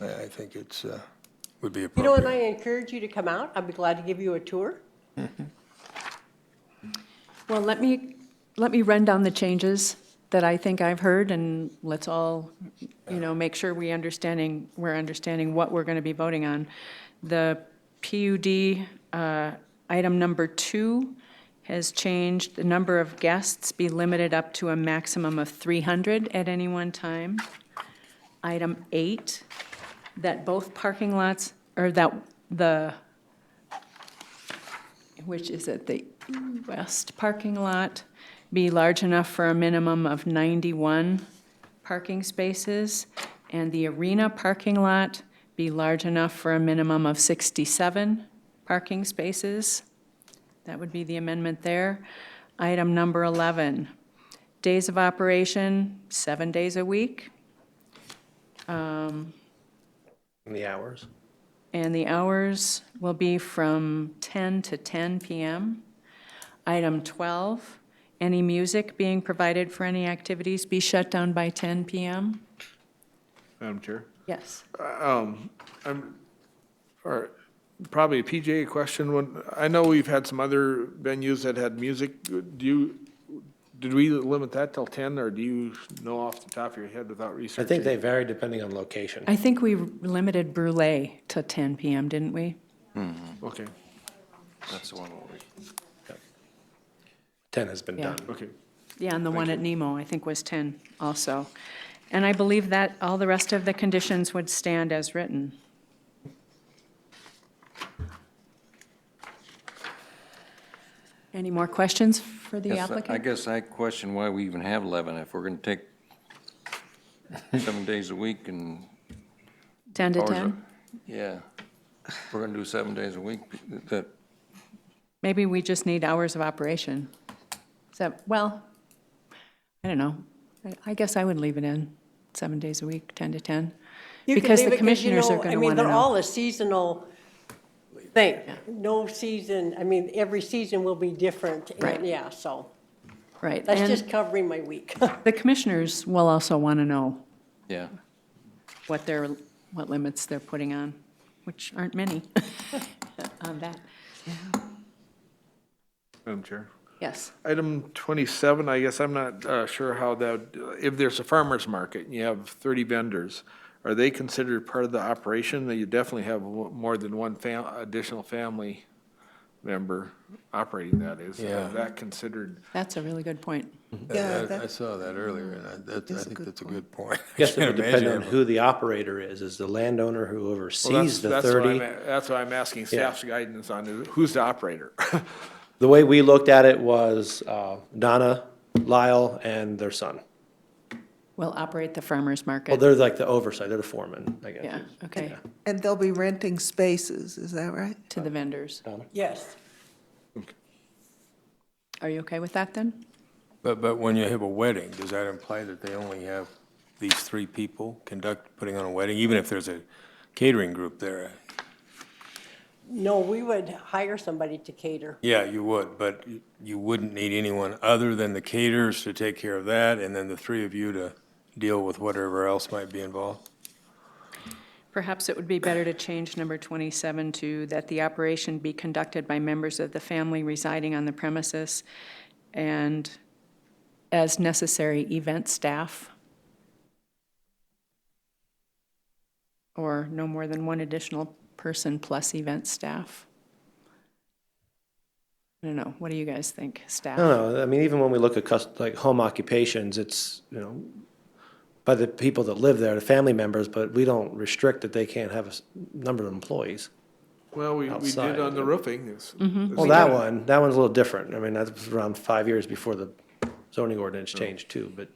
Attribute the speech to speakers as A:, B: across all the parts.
A: I I think it's, uh, would be
B: You know, and I
A: appropriate.
B: encourage you to come out. I'd be glad to give you a tour.
C: Well, let me, let me run down the changes that I think I've heard, and let's all, you know, make sure we understanding, we're understanding what we're going to be voting on. The PUD, uh, item number two has changed, the number of guests be limited up to a maximum of 300 at any one time. Item eight, that both parking lots, or that the which is at the west parking lot, be large enough for a minimum of 91 parking spaces, and the arena parking lot be large enough for a minimum of 67 parking spaces. That would be the amendment there. Item number 11, days of operation, seven days a week,
D: In the hours?
C: and the hours will be from 10 to 10 p.m. Item 12, any music being provided for any activities be shut down by 10 p.m.
E: Madam Chair?
C: Yes.
E: All right, probably a PJ question. When, I know we've had some other venues that had music. Do you, did we limit that till ten, or do you know off the top of your head without
D: I
E: researching?
D: think they vary depending on location.
C: I think we limited Brulé to 10 p.m., didn't we?
E: Okay,
F: That's the one where we,
D: 10 has been
C: Yeah.
D: done.
E: okay.
C: Yeah, and the one at Nemo, I think, was 10 also. And I believe that all the rest of the conditions would stand as written. Any more questions for the
F: Yes, I- I
C: applicant?
F: guess I question why we even have 11 if we're going to take seven days a week and.
C: 10 to
F: hours of-
C: 10?
F: Yeah. If We're going to do seven days a week, that,
C: Maybe we just need hours of operation. Is that, well, I don't know. I- I guess I would leave it in, seven days a week, 10 to 10.
B: You can
C: Because
B: leave
C: the
B: it 'cause, you
C: commissioners are
B: know,
C: going to want
B: I mean,
C: to
B: they're
C: know.
B: all a seasonal thing. No season, I mean, every season will be different. and,
C: Right.
B: Yeah, so
C: Right.
B: that's
C: and-
B: just covering my week.
C: The commissioners will also want to know
F: yeah.
C: what their, what limits they're putting on, which aren't many on that.
E: Madam Chair?
C: Yes.
E: Item twenty-seven, I guess I'm not uh, sure how that, if there's a farmer's market and you have thirty vendors, are they considered part of the operation? You definitely have one- more than one fam, additional family member operating that, is
A: Yeah.
E: that considered?
C: That's a really good point.
A: Yeah, I- I saw that earlier, and I, that- I think that's a good point. I
D: Guess it
A: can't
D: would depend
A: imagine
D: on
A: it.
D: who the operator is, is the landowner who
E: Well, that's-
D: oversees the
E: that's what
D: 30.
E: I'm a- That's what I'm asking staff's guidance on, is who's the operator?
D: The way we looked at it was uh, Donna, Lyle, and their son.
C: We'll operate the farmer's
D: Well,
C: market.
D: they're like the oversight, they're the foreman, I guess.
C: Yeah, okay,
G: And they'll be renting spaces, is that right?
C: to the vendors.
B: Yes.
C: Are you okay with that then?
A: But, but when you have a wedding, does that imply that they only have these three people conduct, putting on a wedding, even if there's a catering group there?
B: No, we would hire somebody to cater.
A: Yeah, you would, but you wouldn't need anyone other than the caterers to take care of that, and then the three of you to deal with whatever else might be involved?
C: Perhaps it would be better to change number 27 to that the operation be conducted by members of the family residing on the premises and as necessary, event staff. Or no more than one additional person plus event staff. I don't know, what do you guys think, staff?
D: I don't know, I mean, even when we look at cus, like home occupations, it's, you know, by the people that live there, the family members, but we don't restrict that they can't have a s- number of employees.
E: Well, we, we
D: Outside.
E: did on the roofing. it's- it's-
D: Well, that one, that one's a little different. I mean, that was around five years before the zoning ordinance changed too, but.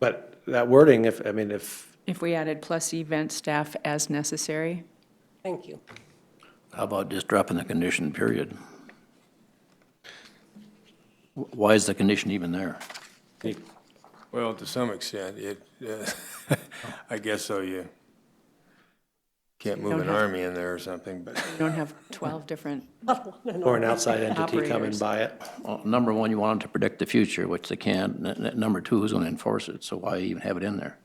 D: But that wording, if, I mean, if,
C: If we added plus event staff as necessary,
B: Thank you.
H: How about just dropping the condition, period? Wh- Why is the condition even there?
A: Well, to some extent, it, uh, I guess so, you can't move
C: Don't
A: an
C: have-
A: army in there or something, but.
C: we don't have 12 different
D: or an outside entity come
C: Operators.
D: and buy it.
H: Well, number one, you want them to predict the future, which they can't. N- n- Number two, who's going to enforce it? So why even have it in there?